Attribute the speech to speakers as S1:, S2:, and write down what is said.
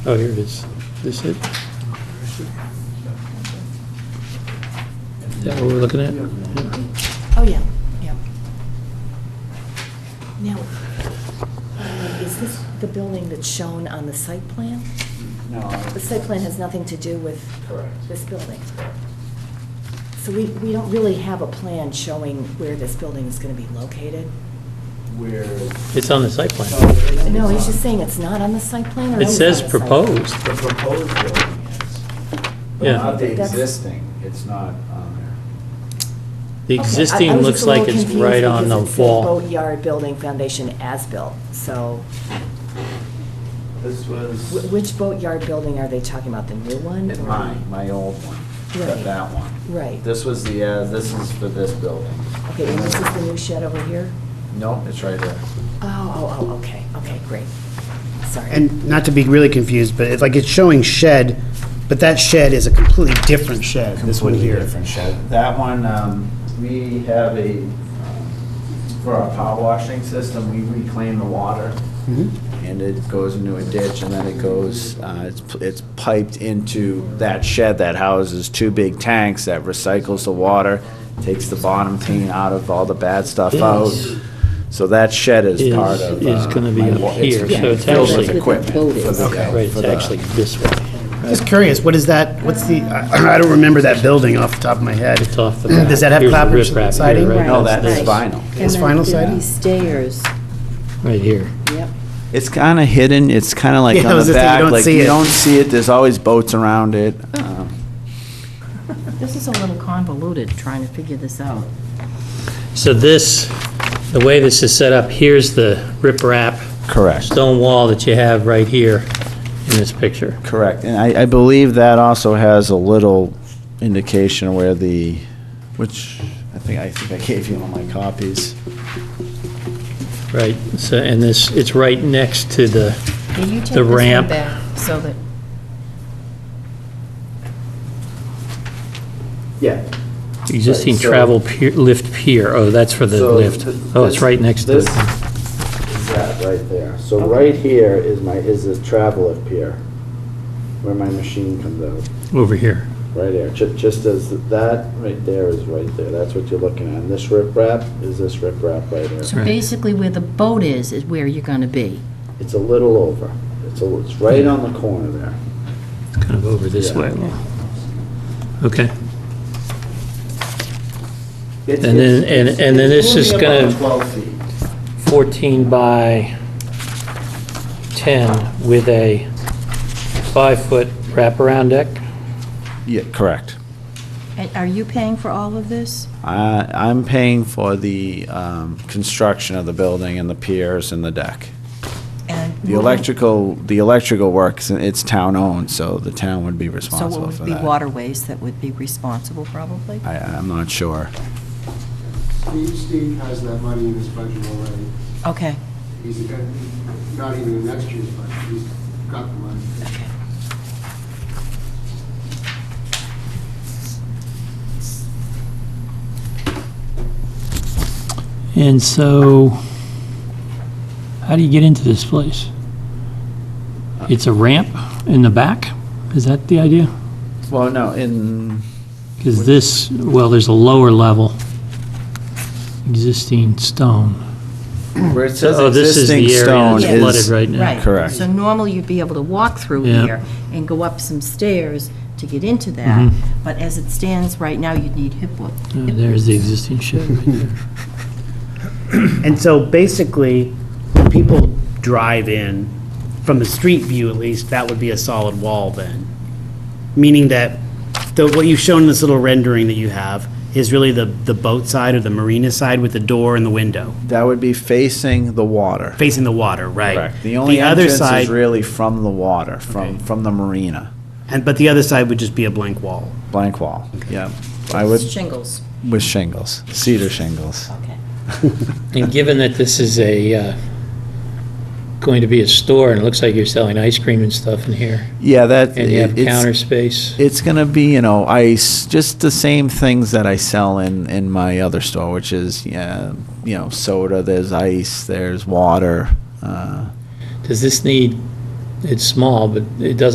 S1: Oh, here it is. This it? Is that what we're looking at?
S2: Oh, yeah, yeah. Now, uh, is this the building that's shown on the site plan?
S3: No.
S2: The site plan has nothing to do with
S3: Correct.
S2: this building. So we, we don't really have a plan showing where this building is going to be located?
S3: Where.
S1: It's on the site plan.
S2: No, he's just saying it's not on the site plan or
S1: It
S2: is
S1: says
S2: on the site plan?
S1: proposed.
S3: The proposed building is. But
S1: Yeah.
S3: Not the
S2: That's-
S3: existing, it's not on
S1: The
S2: Okay, I- I
S1: existing
S2: was
S1: looks
S2: just a little
S1: like it's
S2: confused
S1: right on the
S2: because it said
S1: wall.
S2: Boatyard Building Foundation as-built, so
S3: there. This
S2: wh-
S3: was.
S2: which boatyard building are they talking about, the new one? or-
S3: Mine, my old one,
S2: Right.
S3: that, that one.
S2: Right.
S3: This was the, uh, this is for this building.
S2: Okay, and this is the new shed over here?
S3: No, it's right there.
S2: Oh, oh, oh, okay, okay, great. Sorry.
S4: And not to be really confused, but it's like it's showing shed, but that shed is a completely different shed, this one
S3: Completely
S4: here.
S3: Different shed. That one, um, we have a, um, for our power washing system, we reclaim the water.
S4: Mhm.
S1: Mm-hmm.
S3: and it goes into a ditch, and then it goes, uh, it's it's piped into that shed that houses two big tanks that recycles the water, takes the bottom clean out of all the bad stuff out.
S1: Yes.
S3: So that shed is
S1: Is-
S3: part of.
S1: is
S3: uh,
S1: gonna be
S3: my
S1: up
S3: wa-
S1: here, so it's
S3: filled with
S1: actually-
S3: Equipment. for the-
S1: Right, it's
S3: for the-
S1: actually this way.
S4: Just curious, what is that, what's the, I I don't remember that building off the top of my head.
S1: It's off the back.
S4: Does that have
S1: Here's the
S4: clapboard
S1: riprap here,
S4: siding?
S1: right?
S3: No, that is
S5: Right.
S3: vinyl.
S4: It's vinyl siding?
S5: These stairs,
S1: Right here.
S5: yep.
S3: It's kind of hidden, it's kind of like
S4: Yeah, I
S3: on
S4: was
S3: the
S4: just thinking,
S3: back,
S4: you don't
S3: like
S4: see
S3: you
S4: it.
S3: don't see it, there's always boats around it. um,
S5: This is a little convoluted, trying to figure this out.
S1: So this, the way this is set up, here's the riprap
S3: Correct.
S1: stone wall that you have right here in this picture.
S3: Correct, and I, I believe that also has a little indication where the, which, I think, I think I gave you all my copies.
S1: Right, so, and this, it's right next to the,
S5: Can you take
S1: The
S5: this one
S1: ramp.
S5: back so that,
S3: Yeah.
S1: Existing
S3: Right, so-
S1: travel pier- lift pier, oh, that's for the
S3: So
S1: lift.
S3: th-
S1: Oh, it's
S3: this-
S1: right next to
S3: This
S1: it.
S3: is that right there. So right here is my, is this travel up here, where my machine comes out,
S1: Over here.
S3: right there. Ju- Just as, that right there is right there, that's what you're looking at. And this riprap is this riprap right there.
S5: so
S1: Right.
S5: basically where the boat is, is where you're going to be.
S3: It's a little over, it's, a- it's right on the corner there.
S1: It's kind of over this
S3: Yeah.
S1: way a little. Okay.
S3: It's-
S1: And then-
S3: it's-
S1: and-
S3: it's-
S1: and then
S3: it's
S1: this is
S3: only about
S1: gonna-
S3: 12 feet.
S1: 14 by 10 with a five-foot wraparound deck?
S3: Yeah, correct.
S5: And are you paying for all of this?
S3: I, I'm paying for the um, construction of the building and the piers and the deck.
S5: And
S3: The electrical, the electrical works, it's town-owned, so the town would be
S5: So it
S3: responsible for
S5: would be
S3: that.
S5: waterways that would be responsible probably?
S3: I, I'm not sure.
S6: Steve, Steve has that money in his budget already.
S5: Okay,
S6: He's got, not even in next year's budget, he's got the money.
S5: okay.
S1: And so, how do you get into this place? It's a ramp in the back? Is that the idea?
S3: Well, no, in,
S1: Because this, well, there's a lower level, existing stone.
S3: where it says
S1: Oh, this is
S3: existing
S1: the area
S3: stone
S1: that's flooded
S3: is,
S1: right now.
S5: Right.
S3: Correct.
S5: So normally you'd be able to walk through
S1: Yeah.
S5: here and go up some stairs to get into that,
S1: Mhm.
S5: but as it stands right now, you'd need hip width.
S1: Oh, There's the existing shed right there.
S4: And so basically, when people drive in, from the street view at least, that would be a solid wall then. Meaning that, the, what you've shown in this little rendering that you have is really the, the boat side or the marina side with the door and the window,
S3: that would be facing the water.
S4: facing the water, right?
S3: The only
S4: other
S3: entrance
S4: side,
S3: is really from the water, from,
S4: Okay.
S3: from the marina,
S4: And, but the other side would just be a blank wall.
S3: blank wall, yeah. I would,
S5: Shingles.
S3: with shingles, cedar shingles.
S5: Okay.
S1: And given that this is a, uh, going to be a store, and it looks like you're selling ice cream and stuff in here,
S3: Yeah, that.
S1: and you have
S3: it's-
S1: counter space,
S3: It's gonna be, you know, ice, just the same things that I sell in, in my other store, which is, yeah, you know, soda, there's ice, there's water. Uh,
S1: does this need it's small, but it doesn't